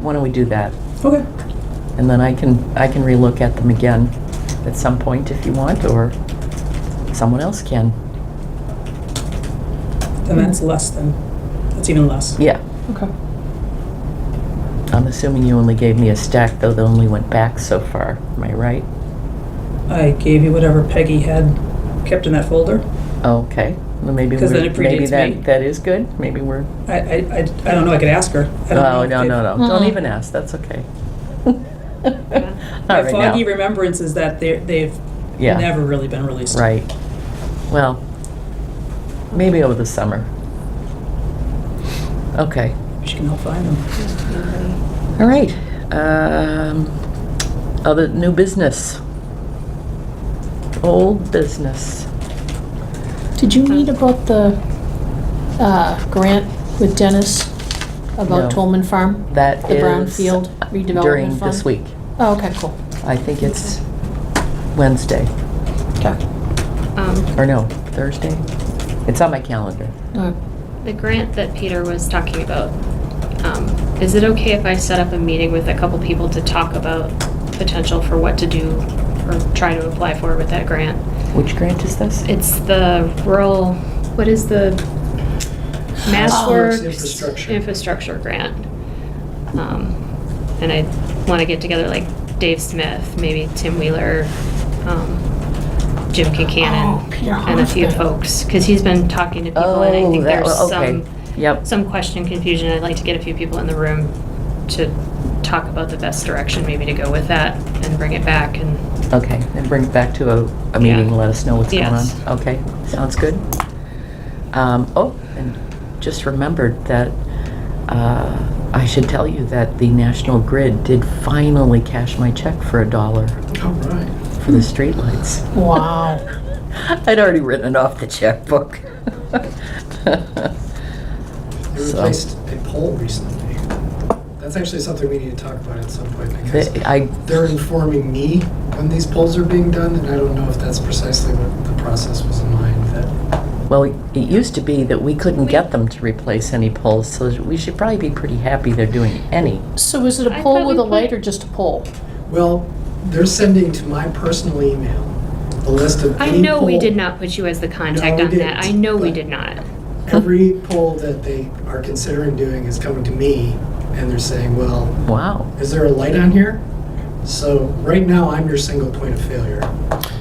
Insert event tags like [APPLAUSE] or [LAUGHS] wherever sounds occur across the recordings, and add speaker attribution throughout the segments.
Speaker 1: why don't we do that?
Speaker 2: Okay.
Speaker 1: And then I can, I can relook at them again at some point if you want, or someone else can. Hmm.
Speaker 2: And that's less than, that's even less.
Speaker 1: Yeah,
Speaker 3: Okay.
Speaker 1: I'm assuming you only gave me a stack, though that only went back so far, am I right?
Speaker 2: I gave you whatever Peggy had kept in that folder.
Speaker 1: Okay, well, maybe we're,
Speaker 2: 'Cause then it
Speaker 1: maybe
Speaker 2: predates me.
Speaker 1: that, that is good, maybe we're,
Speaker 2: I, I, I I don't know, I could ask her. I don't know
Speaker 1: no,
Speaker 2: if
Speaker 1: no,
Speaker 2: they've-
Speaker 1: no, no, don't
Speaker 3: Mm-mm.
Speaker 1: even ask, that's
Speaker 2: [LAUGHS]
Speaker 1: okay. All
Speaker 2: My
Speaker 1: right
Speaker 2: foggy
Speaker 1: now,
Speaker 2: remembrance is that they're, they've
Speaker 1: Yeah.
Speaker 2: never really been released.
Speaker 1: right, well, maybe over the summer. Okay.
Speaker 2: She can help find them.
Speaker 1: All right. um, Other, new business. Old business.
Speaker 3: Did you read about the uh, grant with Dennis
Speaker 1: No.
Speaker 3: about Tolman Farm?
Speaker 1: That
Speaker 3: The
Speaker 1: is.
Speaker 3: brownfield redevelopment
Speaker 1: During this
Speaker 3: fund?
Speaker 1: week.
Speaker 3: Oh, okay, cool.
Speaker 1: I think it's Wednesday,
Speaker 3: Okay.
Speaker 4: Um,
Speaker 1: or no, Thursday? It's on my calendar.
Speaker 3: Uh,
Speaker 4: The grant that Peter was talking about, um, is it okay if I set up a meeting with a couple people to talk about potential for what to do or try to apply for with that grant?
Speaker 1: Which grant is this?
Speaker 4: It's the rural, what is the Mass
Speaker 3: Oh.
Speaker 4: Works?
Speaker 5: Infrastructure.
Speaker 4: Infrastructure grant. Um, And I want to get together like Dave Smith, maybe Tim Wheeler, um, Jim
Speaker 3: Oh,
Speaker 4: Kincannon,
Speaker 3: Peter
Speaker 4: and a few
Speaker 3: Hoffman.
Speaker 4: folks, because he's been talking to people and I
Speaker 1: Oh,
Speaker 4: think
Speaker 1: that,
Speaker 4: there's
Speaker 1: wa-
Speaker 4: some
Speaker 1: okay. Yep.
Speaker 4: some question, confusion. I'd like to get a few people in the room to talk about the best direction maybe to go with that and bring it back and,
Speaker 1: Okay, and bring it back to a, a meeting,
Speaker 4: Yeah.
Speaker 1: let us know what's going on.
Speaker 4: Yes.
Speaker 1: Okay, sounds good. Um, oh, and just remembered that, uh, I should tell you that the National Grid did finally cash my check for a dollar
Speaker 5: All right.
Speaker 1: for the streetlights.
Speaker 3: Wow.
Speaker 1: [LAUGHS] I'd already written it off the checkbook. [LAUGHS]
Speaker 5: They
Speaker 1: So-
Speaker 5: replaced a pole recently. That's actually something we need to talk about at some point because
Speaker 1: They- I,
Speaker 5: they're informing me when these polls are being done, and I don't know if that's precisely what the process was in mind. That
Speaker 1: well, it used to be that we couldn't get them to replace any poles, so we should probably be pretty happy they're doing any.
Speaker 3: So is it
Speaker 4: I
Speaker 3: a pole
Speaker 4: thought
Speaker 3: with
Speaker 4: we
Speaker 3: a light
Speaker 4: put-
Speaker 3: or just a pole?
Speaker 5: well, they're sending to my personal email a list of
Speaker 4: I
Speaker 5: any
Speaker 4: know we
Speaker 5: poll-
Speaker 4: did not put you as the contact
Speaker 5: No, we
Speaker 4: on that.
Speaker 5: didn't,
Speaker 4: I know we
Speaker 5: but-
Speaker 4: did not.
Speaker 5: [LAUGHS] Every poll that they are considering doing is coming to me, and they're saying, "Well,
Speaker 1: Wow.
Speaker 5: is there a light on here?" So right now, I'm your single point of failure.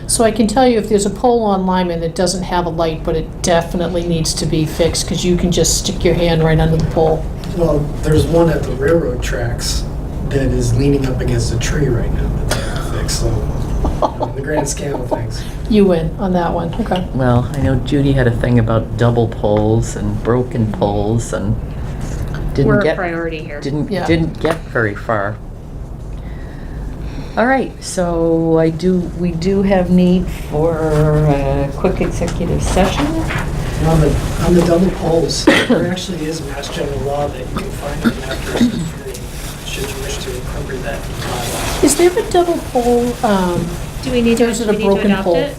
Speaker 3: So I can tell you if there's a pole on Lyman that doesn't have a light, but it definitely needs to be fixed because you can just stick your hand right under the pole.
Speaker 5: Well, there's one at the railroad tracks that is leaning up against a tree right now that they have to fix, so in [LAUGHS] the grand scale of things.
Speaker 3: You win on that one. Okay.
Speaker 1: Well, I know Judy had a thing about double poles and broken poles and
Speaker 4: We're
Speaker 1: didn't
Speaker 4: a
Speaker 1: get,
Speaker 4: priority here.
Speaker 1: didn't,
Speaker 3: Yeah.
Speaker 1: didn't get very far. All right, so I do, we do have need for a quick executive session.
Speaker 5: And on the, on the double poles, there actually is mass general law that you can find in after three, should you wish to incorporate that in bylaws.
Speaker 3: Is there a double pole um,
Speaker 4: Do we need to,
Speaker 3: There's
Speaker 4: do
Speaker 3: a
Speaker 4: we need to
Speaker 3: broken
Speaker 4: adopt
Speaker 3: pole.
Speaker 4: it?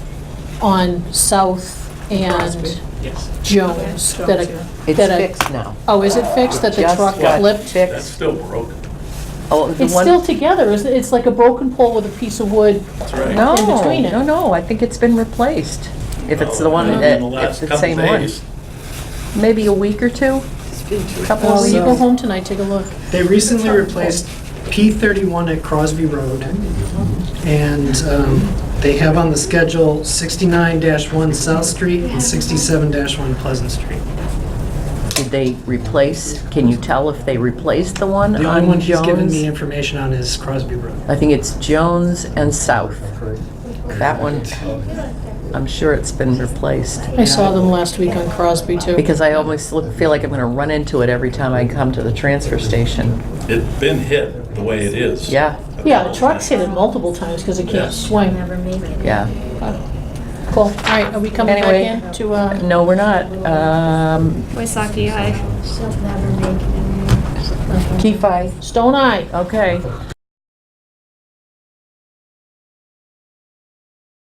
Speaker 3: on South and
Speaker 5: Yes.
Speaker 3: Jones
Speaker 2: Okay,
Speaker 3: that
Speaker 2: Jones,
Speaker 3: a,
Speaker 1: It's
Speaker 3: that a
Speaker 1: fixed now.
Speaker 3: Oh, is it fixed that the
Speaker 1: Just
Speaker 3: truck
Speaker 1: got
Speaker 3: flipped?
Speaker 6: That's
Speaker 1: Fixed.
Speaker 6: still broken.
Speaker 1: Oh, the
Speaker 3: It's
Speaker 1: one-
Speaker 3: still together, isn't it? It's like a broken pole with a piece of wood.
Speaker 6: That's right.
Speaker 1: No,
Speaker 3: in between it.
Speaker 1: no, no, I think it's been replaced. If it's the one
Speaker 6: Oh, In
Speaker 1: that,
Speaker 6: the
Speaker 1: it's
Speaker 6: last
Speaker 1: the
Speaker 6: couple
Speaker 1: same one.
Speaker 6: days.
Speaker 1: Maybe a week or two? Couple
Speaker 3: Well,
Speaker 1: of
Speaker 3: when
Speaker 1: weeks?
Speaker 3: you go
Speaker 5: So-
Speaker 3: home tonight, take a look.
Speaker 5: They recently replaced P thirty-one at Crosby Road, and um, they have on the schedule sixty-nine one South Street and sixty-seven one Pleasant Street.
Speaker 1: Did they replace, can you tell if they replaced the one on Jones?
Speaker 5: The only one he's given me information on is Crosby Road.
Speaker 1: I think it's Jones and South. That one, I'm sure it's been replaced,
Speaker 3: I saw them last week on Crosby too.
Speaker 1: because I almost look, feel like I'm gonna run into it every time I come to the transfer station.
Speaker 6: It's been hit the way it is.
Speaker 1: Yeah,
Speaker 3: Yeah, the truck's hit it multiple times because it
Speaker 6: Yeah.
Speaker 3: can't swing.
Speaker 1: yeah.
Speaker 3: Cool. All right, are we coming back
Speaker 1: Anyway.
Speaker 3: in to, uh,
Speaker 1: No, we're not. Um,
Speaker 4: Waisaki, aye.
Speaker 7: She'll never make it.
Speaker 1: Keefe, aye.
Speaker 3: Stone Eye?
Speaker 1: Okay.